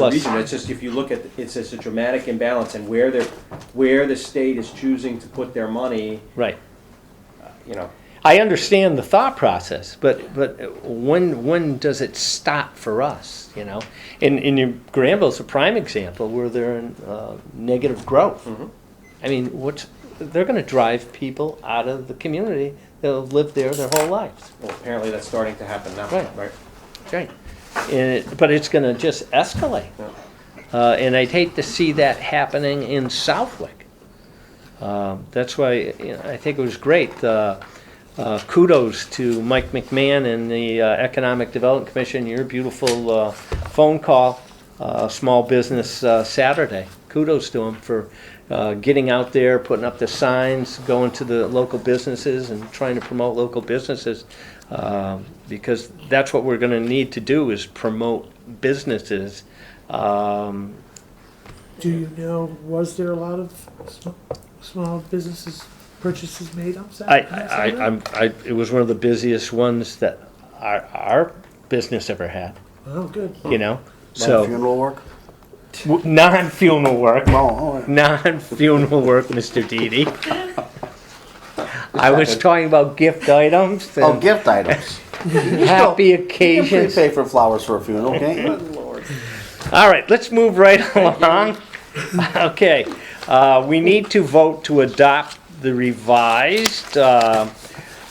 plus. reason, that's just if you look at, it's just a dramatic imbalance and where they're, where the state is choosing to put their money, uh, Right. you know. I understand the thought process, but but when when does it stop for us? You know, and and your Granville's a prime example where they're in uh, negative growth. I mean, what's they're going to drive people out of the community that have lived there their whole lives, Well, apparently that's starting to happen now, Right. right? right? And it, but it's going to just escalate, Yeah. uh, and I'd hate to see that happening in Southwick. Um, that's why you know, I think it was great. Uh, uh, kudos to Mike McMahon and the uh, Economic Development Commission. Your beautiful uh, phone call, uh, Small Business uh, Saturday. Kudos to him for uh, getting out there, putting up the signs, going to the local businesses, and trying to promote local businesses. Um because that's what we're going to need to do is promote businesses. Um, Do you know, was there a lot of sm- small businesses purchases made on Sat- I, on I, Saturday? I- I'm, I, it was one of the busiest ones that our, our business ever had, Oh, good. you know? So So, funeral work. w- non-funeral work, Oh, all right. non-funeral work, Mr. Didi. I was talking about gift items oh, and gift items. happy You can occasions. prepay for flowers for a funeral, can't you? All right, let's move right along. Okay, uh, we need to vote to adopt the revised uh,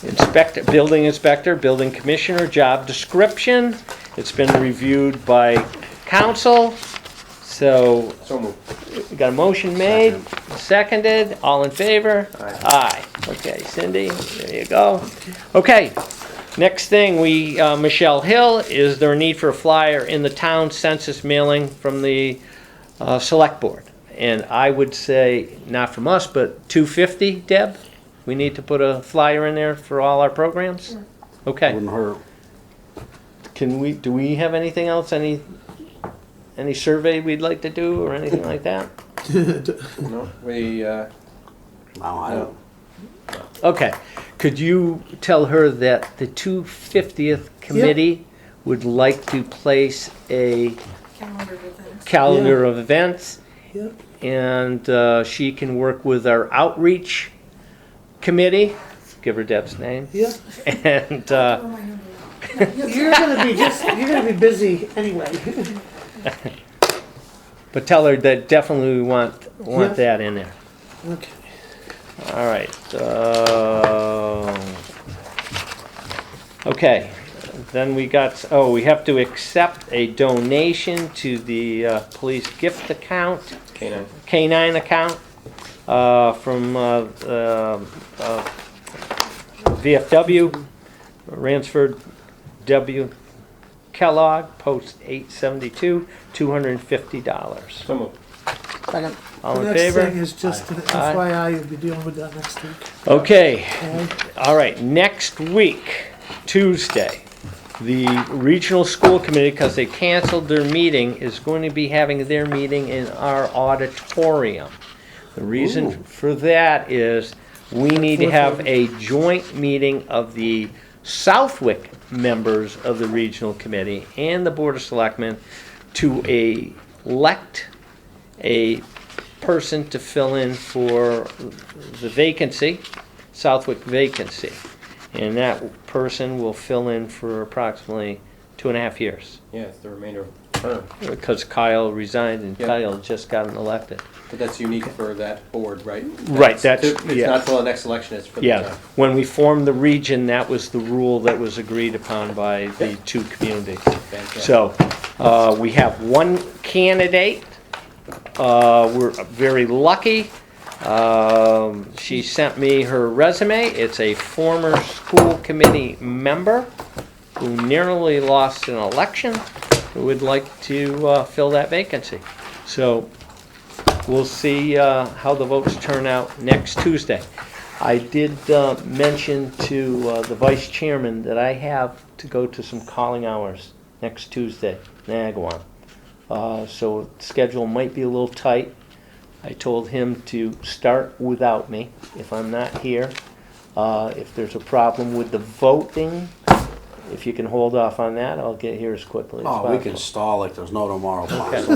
inspector, building inspector, building commissioner job description. It's been reviewed by council, so So moved. we got a motion made, seconded, all in favor? Aye. Okay, Cindy, there you go. Okay, next thing, we, uh, Michelle Hill, is there a need for a flyer in the town census mailing from the uh, select board? And I would say, not from us, but 250, Deb? We need to put a flyer in there for all our programs? Okay, Wouldn't hurt. can we, do we have anything else, any, any survey we'd like to do or anything like that? No, we, uh, No, I don't. Okay, could you tell her that the two fiftieth committee would like to place a calendar with it. calendar of events? Yep. And, uh, she can work with our outreach committee, give her Deb's name, Yeah, and, uh, Oh, my number. you're gonna be just, you're gonna be busy anyway. but tell her that definitely we want, want Yeah. that in there. Okay. All right, uh, okay, then we got, oh, we have to accept a donation to the uh, police gift account, canine. K-9 account, uh, from uh, uh, uh, VFW, Ransford W. Kellogg, Post 872, $250. So moved. Second. All The in next thing favor? is just an Aye. FYI, you'll be dealing with that next week. Okay. okay? All right, next week, Tuesday, the regional school committee, because they canceled their meeting, is going to be having their meeting in our auditorium. The reason for that is we need to have a joint meeting of the Southwick members of the regional committee and the board of selectmen to elect a person to fill in for the vacancy, Southwick vacancy. And that person will fill in for approximately two and a half years, Yeah, it's the remainder of the term. because Kyle resigned and Yeah. Kyle just gotten elected. But that's unique for that board, right? Right, that's- It's yeah. not till the next election, it's for the Yeah, term. when we formed the region, that was the rule that was agreed upon by the two communities. Fantastic. So, uh, we have one candidate. Uh, we're very lucky. Um, she sent me her resume. It's a former school committee member who nearly lost an election, who would like to, uh, fill that vacancy. So, We'll see uh, how the votes turn out next Tuesday. I did uh, mention to uh, the vice chairman that I have to go to some calling hours next Tuesday, Nagawam. Uh, So schedule might be a little tight. I told him to start without me if I'm not here. Uh, If there's a problem with the voting, if you can hold off on that, I'll get here as quickly as Oh, possible. we can stall like there's no tomorrow.